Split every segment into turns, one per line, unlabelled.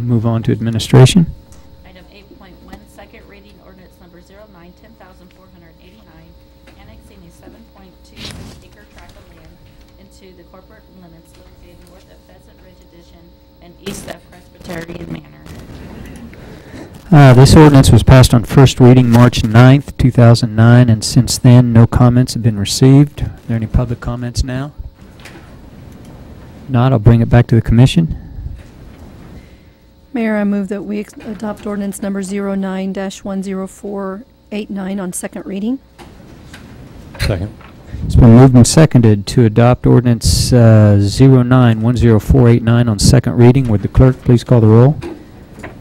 Move on to administration.
Item 8.1, second reading ordinance number 09, 10,489, annexing a 7.26 acre tract of land into the corporate limits located north of Pheasant Ridge Addition and east of Presbyterian Manor.
Uh, This ordinance was passed on first reading March 9th, 2009, and since then, no comments have been received. Are there any public comments now? Not, I'll bring it back to the commission.
Mayor, I move that we ex- adopt ordinance number 09-10489 on second reading.
Second.
It's been moved and seconded to adopt ordinance uh, 09-10489 on second reading. Would the clerk please call the roll?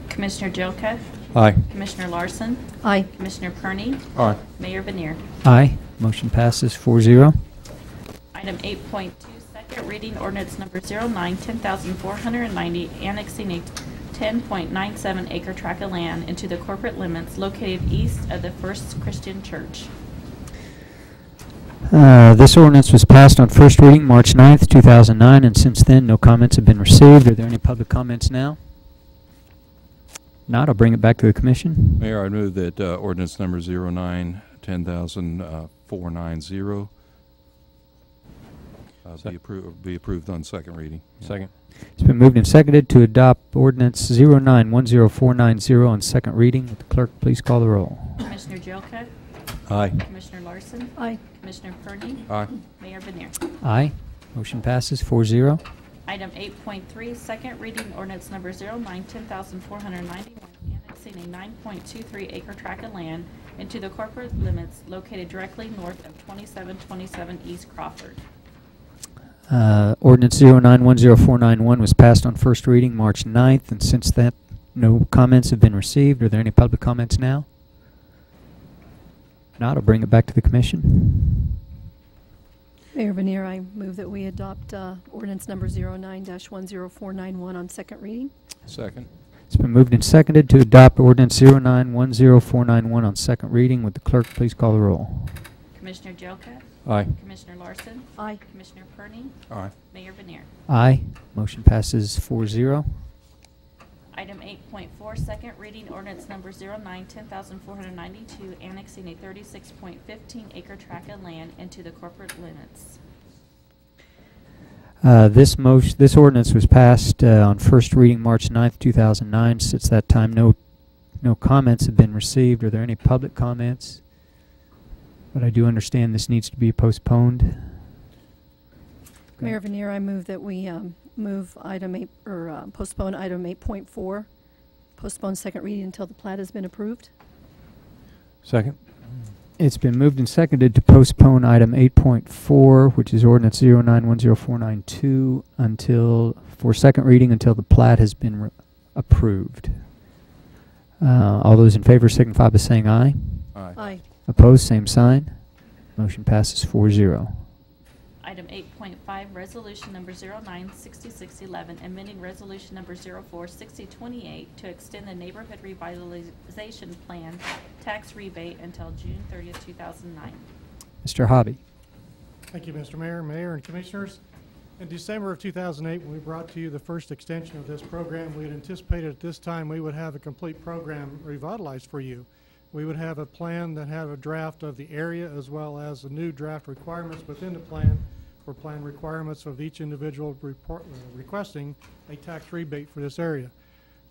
Commissioner Jelka,
Aye.
Commissioner Larson,
Aye.
Commissioner Kearney,
Aye.
Mayor Vanir.
Aye. Motion passes 4-0.
Item 8.2, second reading ordinance number 09, 10,490, annexing a 10.97 acre tract of land into the corporate limits located east of the First Christian Church.
Uh, This ordinance was passed on first reading March 9th, 2009, and since then, no comments have been received. Are there any public comments now? Not, I'll bring it back to the commission.
Mayor, I move that uh, ordinance number 09, uh, 10,490 uh, be approved, be approved on second reading.
Second.
It's been moved and seconded to adopt ordinance 09-10490 on second reading. Would the clerk please call the roll?
Commissioner Jelka,
Aye.
Commissioner Larson,
Aye.
Commissioner Kearney,
Aye.
Mayor Vanir.
Aye. Motion passes 4-0.
Item 8.3, second reading ordinance number 09, 10,491, annexing a 9.23 acre tract of land into the corporate limits located directly north of 2727 East Crawford.
Uh, Ordinance 09-10491 was passed on first reading March 9th, and since that, no comments have been received. Are there any public comments now? Not, I'll bring it back to the commission.
Mayor Vanir, I move that we adopt uh, ordinance number 09-10491 on second reading.
Second.
It's been moved and seconded to adopt ordinance 09-10491 on second reading. Would the clerk please call the roll?
Commissioner Jelka,
Aye.
Commissioner Larson,
Aye.
Commissioner Perney,
Aye.
Mayor Vanir.
Aye. Motion passes 4-0.
Item 8.4, second reading ordinance number 09, 10,492, annexing a 36.15 acre tract of land into the corporate limits.
Uh, This motion, this ordinance was passed uh, on first reading March 9th, 2009. Since that time, no, no comments have been received. Are there any public comments? But I do understand this needs to be postponed.
Mayor Vanir, I move that we um, move item eight, or uh, postpone item 8.4, postpone second reading until the plat has been approved.
Second.
It's been moved and seconded to postpone item 8.4, which is ordinance 09-10492, until, for second reading, until the plat has been re- approved. Uh, All those in favor signify by saying aye.
Aye.
Aye.
Opposed, same sign. Motion passes 4-0.
Item 8.5, resolution number 096611, amending resolution number 046028 to extend the neighborhood revitalization plan tax rebate until June 30th, 2009.
Mr. Hobby.
Thank you, Mr. Mayor, Mayor, and Commissioners. In December of 2008, when we brought to you the first extension of this program, we had anticipated at this time we would have a complete program revitalized for you. We would have a plan that had a draft of the area as well as the new draft requirements within the plan for plan requirements of each individual report- uh, requesting a tax rebate for this area.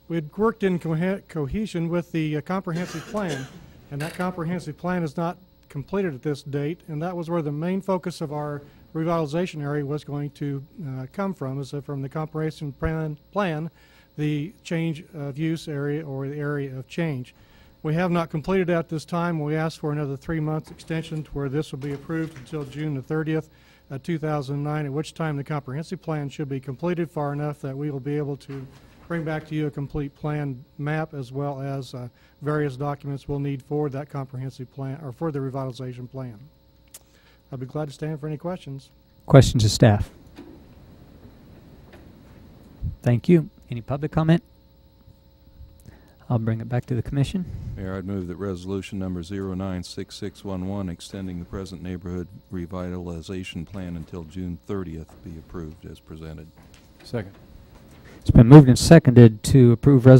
We had worked in cohe- cohesion with the uh, comprehensive plan, and that comprehensive plan is not completed at this date, and that was where the main focus of our revitalization area was going to uh, come from, is that from the comprehensive plan, plan, the change of use area or the area of change. We have not completed at this time. We asked for another three-month extension to where this will be approved until June the 30th, uh, 2009, at which time the comprehensive plan should be completed far enough that we will be able to bring back to you a complete plan map as well as uh, various documents we'll need for that comprehensive plan, or for the revitalization plan. I'd be glad to stand for any questions.
Questions of staff? Thank you. Any public comment? I'll bring it back to the commission.
Mayor, I'd move that resolution number 096611, extending the present neighborhood revitalization plan until June 30th, be approved as presented.
Second.
It's been moved and seconded to approve resolution